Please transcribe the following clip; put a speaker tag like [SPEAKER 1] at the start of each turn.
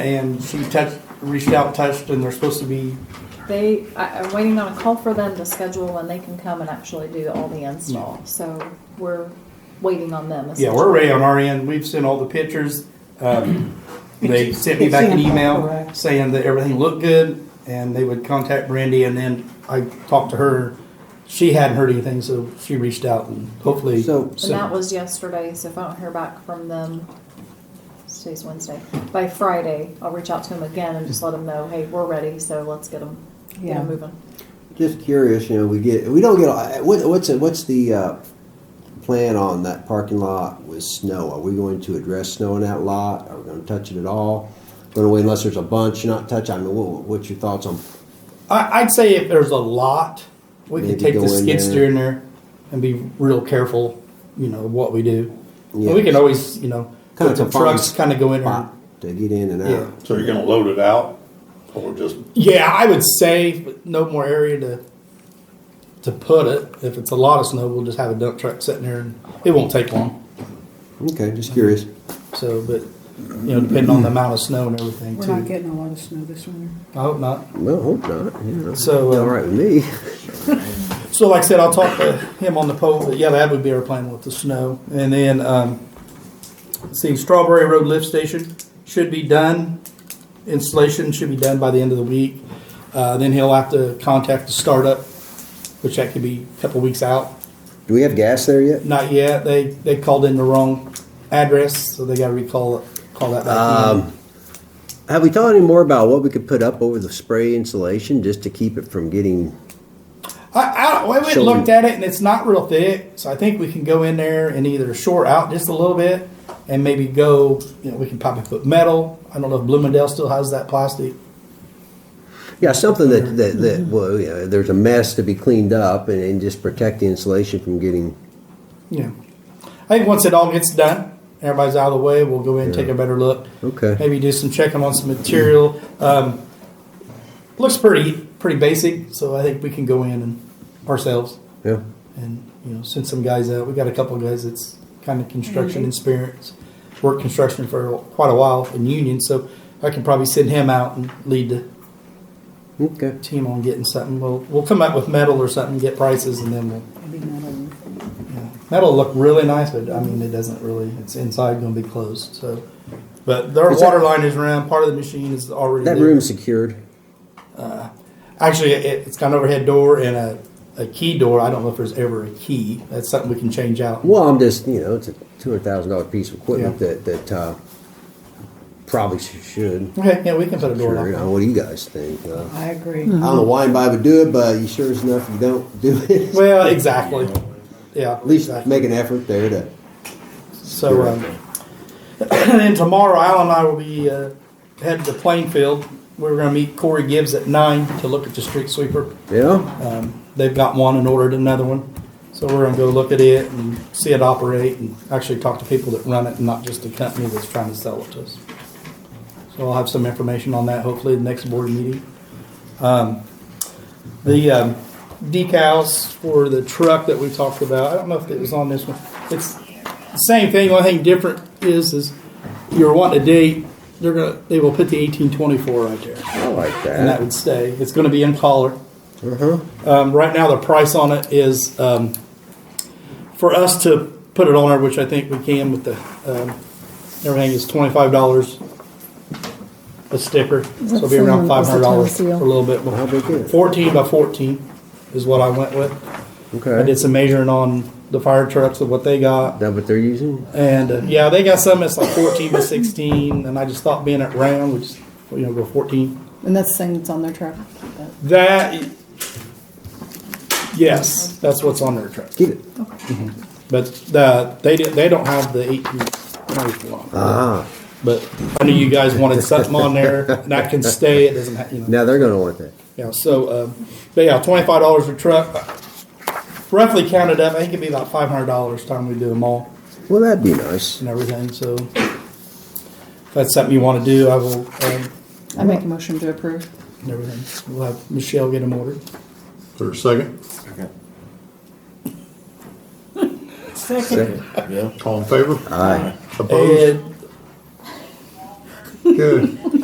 [SPEAKER 1] and she touched, reached out, touched, and they're supposed to be,
[SPEAKER 2] They, I, I'm waiting on a call for them to schedule when they can come and actually do all the install. So we're waiting on them.
[SPEAKER 1] yeah, we're ready on our end. We've sent all the pictures. Um, They sent me back an email saying that everything looked good and they would contact Brandy and then I talked to her. She hadn't heard anything, so she reached out and hopefully.
[SPEAKER 3] So-
[SPEAKER 2] And that was yesterday, so if I don't hear back from them, today's Wednesday, by Friday, I'll reach out to them again and just let them know, hey, we're ready, so let's get them, get
[SPEAKER 4] Yeah.
[SPEAKER 2] them moving.
[SPEAKER 3] Just curious, you know, we get, we don't get, a- what, what's, the- what's the, uh, plan on that parking lot with snow? Are we going to address snow in that lot? Are we gonna touch it at all? Going away unless there's a bunch not touch, I mean, what, what's your thoughts on,
[SPEAKER 1] I, I'd say if there's a lot, we could
[SPEAKER 3] Maybe
[SPEAKER 1] take
[SPEAKER 3] go
[SPEAKER 1] the
[SPEAKER 3] in
[SPEAKER 1] skid
[SPEAKER 3] there.
[SPEAKER 1] steer in there and be real careful, you know, what we do. And we
[SPEAKER 3] Yeah.
[SPEAKER 1] can always, you know,
[SPEAKER 3] Kinda
[SPEAKER 1] put the
[SPEAKER 3] to find
[SPEAKER 1] trucks kind of go in there.
[SPEAKER 3] spot to get in and
[SPEAKER 1] Yeah.
[SPEAKER 3] out?
[SPEAKER 5] So you're gonna load it out, or just,
[SPEAKER 1] Yeah, I would say but no more area to to put it. If it's a lot of snow, we'll just have a dump truck sitting there, and it won't take long.
[SPEAKER 3] Okay, just curious.
[SPEAKER 1] So, but you know, depending on the amount of snow and everything,
[SPEAKER 4] We're
[SPEAKER 1] too.
[SPEAKER 4] not getting a lot of snow this winter.
[SPEAKER 1] I hope not.
[SPEAKER 3] Well, hope not, you know.
[SPEAKER 1] So, uh,
[SPEAKER 3] All right with me.
[SPEAKER 1] So, like I said, I'll talk to him on the pole. But yeah, that would be our plan with the snow. And then, um, let's see, Strawberry Road lift station should be done. Installation should be done by the end of the week. Uh, then he'll have to contact the startup, which that could be a couple weeks out.
[SPEAKER 3] Do we have gas there yet?
[SPEAKER 1] Not yet. They they called in the wrong address, so they got to recall it. Call that back. in.
[SPEAKER 3] Have we thought any more about what we could put up over the spray insulation just to keep it from getting,
[SPEAKER 1] I, I, we went and
[SPEAKER 3] Shall
[SPEAKER 1] looked
[SPEAKER 3] we-
[SPEAKER 1] at it, and it's not real thick, so I think we can go in there and either short out just a little bit, and maybe go. You know, we can probably put metal. I don't know if Bloomingdale still has that plastic.
[SPEAKER 3] yeah, something that, that, that, well, you know, there's a mess to be cleaned up and, and just protect the insulation from getting,
[SPEAKER 1] Yeah, I think once it all gets done, everybody's out of the way. We'll go in and take a better look.
[SPEAKER 3] Okay.
[SPEAKER 1] Maybe do some checking on some material. Um, looks pretty pretty basic, so I think we can go in and ourselves.
[SPEAKER 3] yeah.
[SPEAKER 1] and you know send some guys out. We got a couple of guys that's kind of construction experience, worked construction for quite a while in Union, so I can probably send him out and lead the
[SPEAKER 3] Okay.
[SPEAKER 1] team on getting something. We'll we'll come up with metal or something, get prices, and then we'll.
[SPEAKER 4] Maybe not a-
[SPEAKER 1] You know, that'll look really nice, but I mean it doesn't really. It's inside going to be closed, so. But their
[SPEAKER 3] Is that-
[SPEAKER 1] water line is around. Part of the machine is already
[SPEAKER 3] That
[SPEAKER 1] there.
[SPEAKER 3] room's secured.
[SPEAKER 1] Actually, it, it's got an overhead door and a, a key door. I don't know if there's ever a key. That's something we can change out.
[SPEAKER 3] Well, I'm just, you know, it's a two hundred thousand dollar piece of equipment
[SPEAKER 1] Yeah.
[SPEAKER 3] that, that, uh, probably sh- should.
[SPEAKER 1] Okay, yeah, we can put a door
[SPEAKER 3] Sure,
[SPEAKER 1] lock
[SPEAKER 3] you
[SPEAKER 1] on.
[SPEAKER 3] know, what do you guys think? Uh,
[SPEAKER 4] I agree.
[SPEAKER 3] I don't know why anybody would do it, but you sure as enough you don't do it.
[SPEAKER 1] Well, exactly. Yeah.
[SPEAKER 3] At least
[SPEAKER 1] exactly.
[SPEAKER 3] make an effort there to,
[SPEAKER 1] So, um, and then tomorrow, Al and I will be uh, headed to Plainfield. We're going to meet Corey Gibbs at nine to look at the street sweeper.
[SPEAKER 3] yeah?
[SPEAKER 1] Um, they've got one and ordered another one. So we're going to go look at it and see it operate and actually talk to people that run it and not just the company that's trying to sell it to us. So I'll have some information on that hopefully the next board meeting. Um, the um, decals for the truck that we talked about, I don't know if it was on this one. It's the same thing. Only thing different is is you're wanting a date. They're gonna they will put the 1824 right there,
[SPEAKER 3] I like
[SPEAKER 1] and that
[SPEAKER 3] that.
[SPEAKER 1] would stay. It's going to be in collar.
[SPEAKER 3] Uh-huh.
[SPEAKER 1] Um, right now, the price on it is, um, for us to put it on there, which I think we can with the, um, everything is twenty-five dollars a sticker. So it'll be
[SPEAKER 6] the
[SPEAKER 1] around
[SPEAKER 6] one-
[SPEAKER 1] five
[SPEAKER 6] is the
[SPEAKER 1] hundred dollars for a
[SPEAKER 6] Tennessee?
[SPEAKER 1] little bit.
[SPEAKER 3] How big is
[SPEAKER 1] more.
[SPEAKER 3] it?
[SPEAKER 1] Fourteen by fourteen is what I went with. I
[SPEAKER 3] Okay.
[SPEAKER 1] did some measuring on the fire trucks of what they got.
[SPEAKER 3] That what they're using?
[SPEAKER 1] And uh, yeah, they got some that's like fourteen by sixteen, and I just thought being at round, which, you know, go fourteen.
[SPEAKER 4] And that's the thing that's on their truck.
[SPEAKER 1] That, yes, that's what's on their truck.
[SPEAKER 3] Get it.
[SPEAKER 1] But the, they did, they don't have the eighteen twenty-four on.
[SPEAKER 3] Ah,
[SPEAKER 1] But I knew you guys wanted something on there that can stay. It doesn't have, you know.
[SPEAKER 3] now they're gonna want that.
[SPEAKER 1] Yeah, so, uh, but yeah, twenty-five dollars a truck. Roughly counted up, I think it'd be about five hundred dollars time we do them all
[SPEAKER 3] Well, that'd be nice.
[SPEAKER 1] and everything, so. If that's something you wanna do, I will, um,
[SPEAKER 4] I make a motion to approve.
[SPEAKER 1] and everything. We'll have Michelle get them ordered.
[SPEAKER 5] for a second?
[SPEAKER 3] Second.
[SPEAKER 5] All in favor?
[SPEAKER 3] Aye.
[SPEAKER 5] Opposed?
[SPEAKER 1] And
[SPEAKER 5] Good.